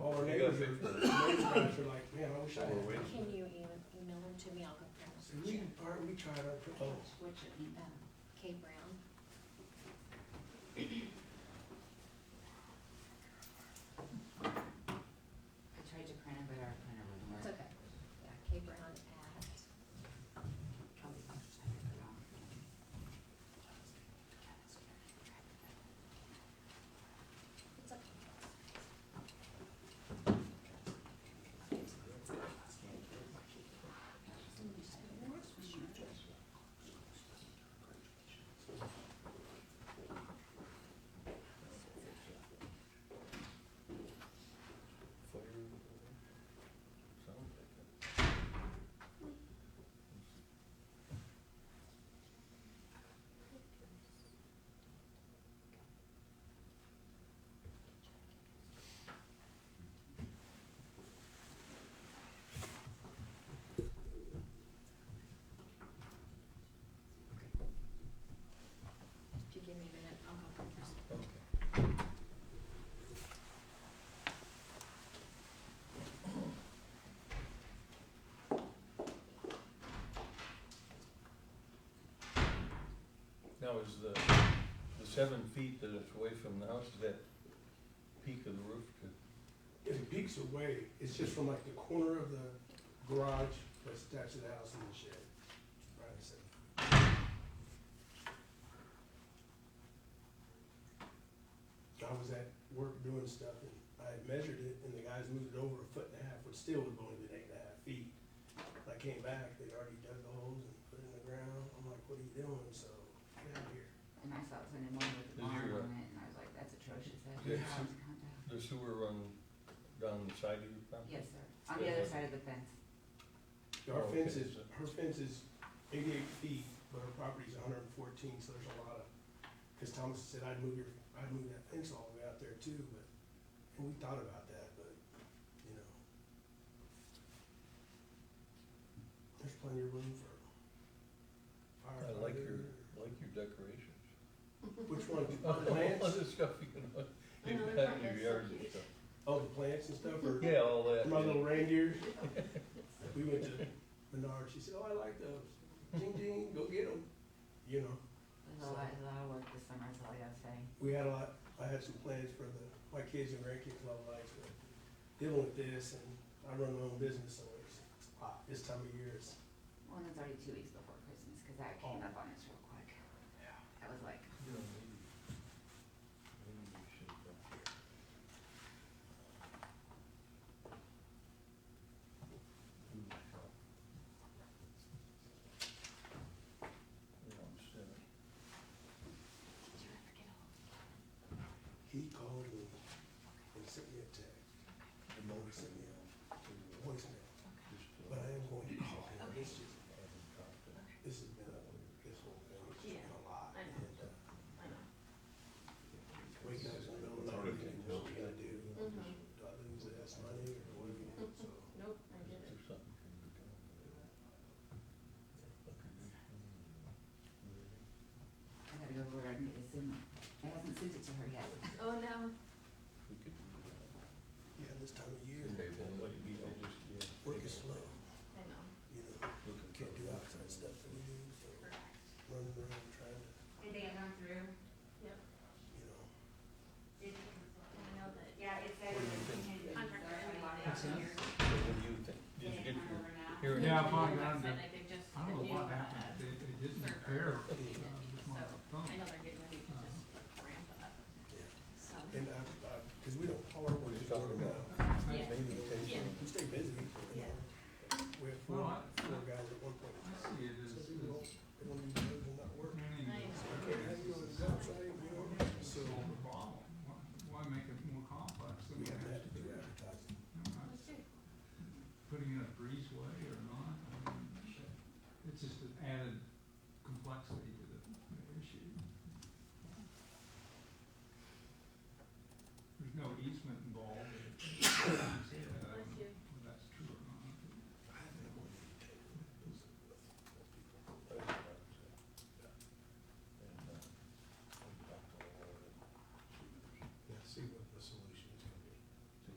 all our neighbors are, neighbors guys are like, man, I wish I Or had. wait. Can you e- email them to me? I'll go grab And some. we, are, we tried our, oh, Which, um, Kay Brown. I tried to print it, but our printer wouldn't work. It's okay. Yeah, Kay Brown at, Probably the first time I put it on. it's okay. If you give me a minute, I'll go grab some. Now, is the, the seven feet that it's away from the house, is that peak of the roof to? if it peaks away, it's just from like the corner of the garage that's attached to the house and the shed. Right, so. I was at work doing stuff and I had measured it and the guys moved it over a foot and a half, which still would have only been eight and a half feet. When I came back, they'd already dug the holes and put it in the ground. I'm like, what are you doing? So, get out of here. And I saw something one with the Is barn your, uh, on it, and I was like, that's atrocious, that Yeah. is contact. The sewer run down the side of your property? Yes, sir, on the other side of the fence, Our Oh, okay. fence is, her fence is eighty-eight feet, but her property's hundred and fourteen, so there's a lot of, cause Thomas said, I'd move your, I'd move that fence all the way out there too, but, and we thought about that, but, you know. There's plenty of room for. I like your, firefighter. like your decorations. Which one, the All plants, the stuff you know, I know, you they're have in your so yard and cute. stuff. oh, the plants and stuff, or Yeah, all that. my little yeah. reindeer? We went to Menard, she said, oh, I like those, ding ding, go get them, you know. there's a lot, a lot of work this summer, is all I gotta say. we had a lot, I had some plans for the, my kids and grandkids love life, but dealing with this and I run my own business, so it's, it's hot. This time of year, it's, Well, and it's already two weeks before Christmas, cause that came up on us real quick, yeah. I was like, You know, maybe- maybe we should, uh, do that. You know, instead of- did you ever get old? He called me and sent me a text, the motor sent me a voicemail, but I am going to Oh, call him. It's just, this has been a, this whole thing, it's just been a lot. Yeah, I know. And, uh, Wake up in the middle of the night and what are you gonna do? Mhm. Do I lose this money or what are you gonna do? So, Nope, I Is get it. there something can be done with that? Like a new thing? I gotta go over there and get this in, I haven't sent it to her yet. Oh, no. We could do that. yeah, this time of year, And what you need to just, yeah, work take is a slow, I know. you know. look at can't do the- outside stuff that we do, so running around trying to, Did they come through? you know, Did you? I know that. Yeah, it said. What do you think? So what do you think? Did you get your hearing? Yeah, I instrument? probably got it. they just. I don't know what happened, they, they didn't repair, uh, just my phone. I know they're getting ready to just ramp up, yeah. so. And I, I, cause we don't call her when We're it's talking talking about- about, Yeah. Maybe take Yeah. some- we stay busy. you know. We have four, Well, I- four guys at one point. I see it as, So as we don't, they don't need to do that work. I many can't have you on the job site, you know, so solve the problem. Why- Why make it more complex than we it have to has have to to be? do advertising. You know, that's Putting in a breezeway or not, I mean, it's just an added complexity to the the issue. There's no easement involved.